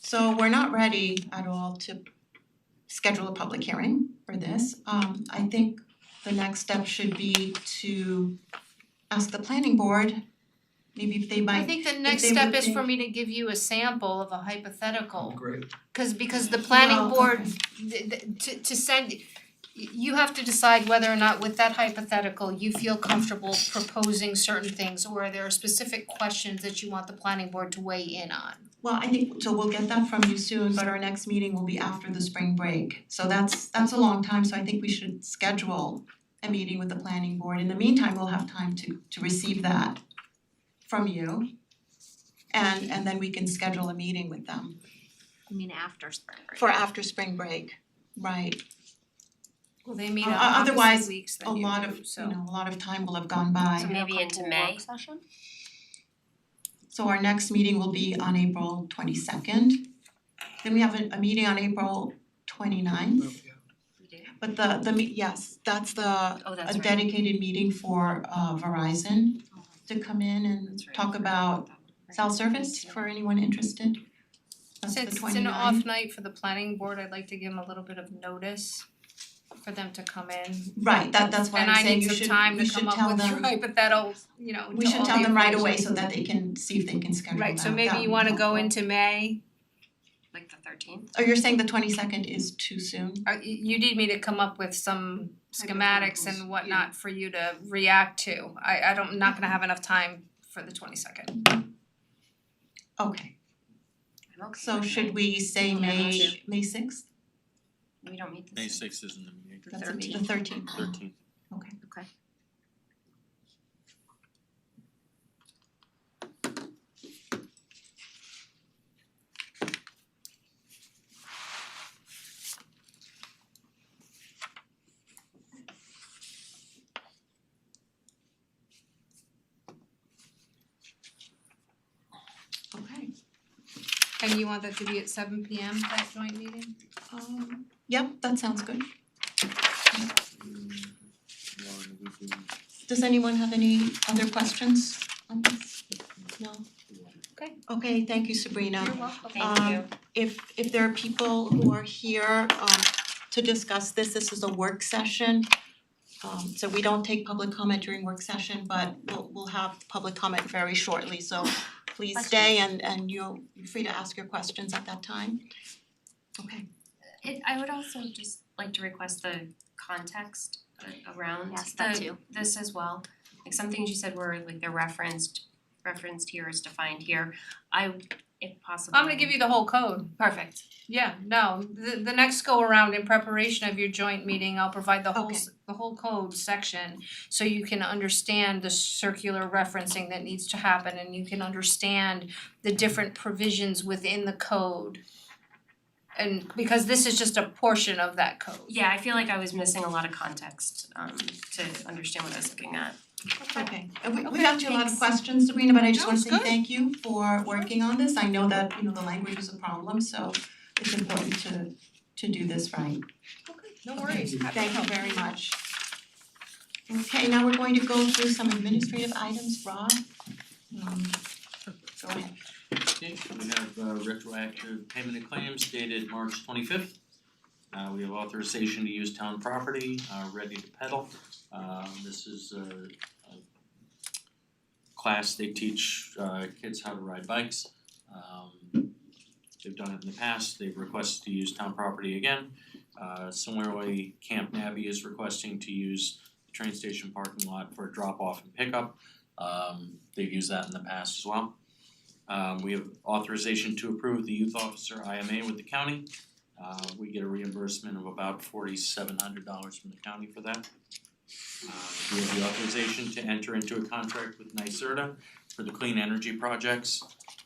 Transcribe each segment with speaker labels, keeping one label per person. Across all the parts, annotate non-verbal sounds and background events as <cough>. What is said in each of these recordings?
Speaker 1: So we're not ready at all to schedule a public hearing for this. Um I think the next step should be to ask the planning board, maybe if they
Speaker 2: I
Speaker 1: might,
Speaker 2: think the next
Speaker 1: they
Speaker 2: step
Speaker 1: would
Speaker 2: is for
Speaker 1: think-
Speaker 2: me to give you a sample of a hypothetical,
Speaker 3: Great.
Speaker 2: cause because the planning
Speaker 1: Well,
Speaker 2: board, th- th- to to send, y- you have to decide whether or not with that hypothetical, you feel comfortable proposing certain things, or there are specific questions that you want the planning board to weigh in on.
Speaker 1: well, I think, so we'll get that from you soon, but our next meeting will be after the spring break. So that's that's a long time, so I think we should schedule a meeting with the planning board. In the meantime, we'll have time to to receive that from you. And and then we can schedule a meeting with them.
Speaker 4: I mean, after spring break.
Speaker 1: For after spring break, right,
Speaker 2: Well, they meet
Speaker 1: O-
Speaker 2: on
Speaker 1: Uh, otherwise,
Speaker 2: opposite weeks
Speaker 1: a
Speaker 2: than you
Speaker 1: lot
Speaker 2: do,
Speaker 1: of,
Speaker 2: so-
Speaker 1: you know, a lot of time will have gone by.
Speaker 4: So maybe into May.
Speaker 1: So our next meeting will be on April twenty second. Then we have a a meeting on April twenty ninth,
Speaker 4: We do.
Speaker 1: but the the me- yes, that's the
Speaker 4: Oh, that's
Speaker 1: a
Speaker 4: right.
Speaker 1: dedicated meeting for uh Verizon
Speaker 4: Oh,
Speaker 1: to come in and
Speaker 4: that's right.
Speaker 1: talk about cell service for anyone interested. That's the
Speaker 2: Since it's
Speaker 1: 29th.
Speaker 2: an off night for the planning board, I'd like to give them a little bit of notice for them to come in.
Speaker 1: Right, that that's why
Speaker 2: And
Speaker 1: I'm
Speaker 2: I
Speaker 1: saying
Speaker 2: need
Speaker 1: you
Speaker 2: some
Speaker 1: should,
Speaker 2: time
Speaker 1: you
Speaker 2: to
Speaker 1: should
Speaker 2: come up
Speaker 1: tell
Speaker 2: with <laughs> your
Speaker 1: them,
Speaker 2: hypothetical, you know,
Speaker 1: we
Speaker 2: to
Speaker 1: should
Speaker 2: all
Speaker 1: tell
Speaker 2: the
Speaker 1: them right away
Speaker 2: information.
Speaker 1: so that they can see if they can schedule that,
Speaker 2: Right, so
Speaker 1: That
Speaker 2: maybe
Speaker 1: would
Speaker 2: you
Speaker 1: be
Speaker 2: wanna go
Speaker 1: helpful.
Speaker 2: into May,
Speaker 4: Like the thirteenth.
Speaker 1: Oh, you're saying the twenty second is too soon?
Speaker 2: Uh, y- you need me to come up with some schematics
Speaker 4: Hypotheticals,
Speaker 2: and whatnot for you to react to. I I don't, not gonna have enough time for the twenty second.
Speaker 1: Okay,
Speaker 4: I'm okay.
Speaker 1: so
Speaker 4: with
Speaker 1: should
Speaker 4: May.
Speaker 1: we say
Speaker 4: Yeah, me
Speaker 1: May,
Speaker 4: too.
Speaker 1: May sixth?
Speaker 4: We don't meet
Speaker 5: May
Speaker 4: this.
Speaker 5: sixth isn't the meeting,
Speaker 1: That's the
Speaker 4: 13th.
Speaker 1: thirteenth,
Speaker 5: thirteenth.
Speaker 1: okay.
Speaker 4: Okay.
Speaker 1: Okay,
Speaker 2: And you want that to be at seven P M, that joint meeting?
Speaker 1: um, yep, that sounds good. Does anyone have any other questions on this? No?
Speaker 2: Okay.
Speaker 1: Okay, thank you Sabrina.
Speaker 2: You're welcome.
Speaker 4: Thank
Speaker 1: Um,
Speaker 4: you.
Speaker 1: if if there are people who are here um to discuss this, this is a work session. Um so we don't take public comment during work session, but we'll we'll have public comment very shortly, so please stay and and you'll you're free to ask your questions at that time. Okay,
Speaker 4: It, I would also just like to request the context a- around
Speaker 6: Yes, that
Speaker 4: the-
Speaker 6: too.
Speaker 4: this as well. Like some things you said were like they're referenced, referenced here is defined here. I, if possible.
Speaker 2: I'm gonna give you the whole code.
Speaker 4: Perfect.
Speaker 2: Yeah, no, the the next go around in preparation of your joint meeting, I'll provide the whole,
Speaker 1: Okay.
Speaker 2: s- the whole code section. So you can understand the circular referencing that needs to happen and you can understand the different provisions within the code. And because this is just a portion of that code.
Speaker 4: Yeah, I feel like I was missing a lot of context um to understand what I was looking at.
Speaker 1: okay. And we we
Speaker 2: Okay,
Speaker 1: asked you a lot of
Speaker 2: thanks.
Speaker 1: questions, Sabrina, but I just
Speaker 2: No,
Speaker 1: wanna
Speaker 2: it's
Speaker 1: say
Speaker 2: good.
Speaker 1: thank you for working on this. I know that, you know, the language is a problem, so it's important to to do this right.
Speaker 2: Okay, no
Speaker 3: worries. Thank you.
Speaker 1: Thank you very much. Okay, now we're going to go through some administrative items, Rob. Um, go ahead.
Speaker 5: Okay, we have uh, retroactive payment of claims dated March twenty-fifth. Uh, we have authorization to use town property, uh, ready to pedal. Um, this is a, a class they teach, uh, kids how to ride bikes. Um, they've done it in the past, they've requested to use town property again. Uh, similarly, Camp Nabby is requesting to use the train station parking lot for drop-off and pickup. Um, they've used that in the past as well. Um we have authorization to approve the youth officer IMA with the county. Uh we get a reimbursement of about forty seven hundred dollars from the county for that. Uh we have the authorization to enter into a contract with NYSERDA for the clean energy projects.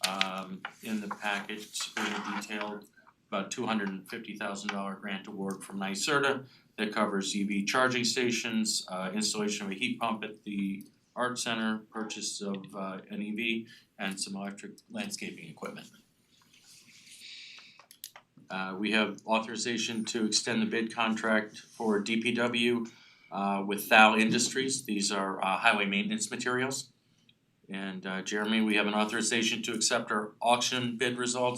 Speaker 5: Um in the package, Sabrina detailed about two hundred and fifty thousand dollar grant award from NYSERDA that covers EV charging stations, uh installation of a heat pump at the art center, purchase of uh an EV and some electric landscaping equipment. Uh we have authorization to extend the bid contract for DPW uh with Thal Industries, these are uh highway maintenance materials. And uh Jeremy, we have an authorization to accept our auction bid results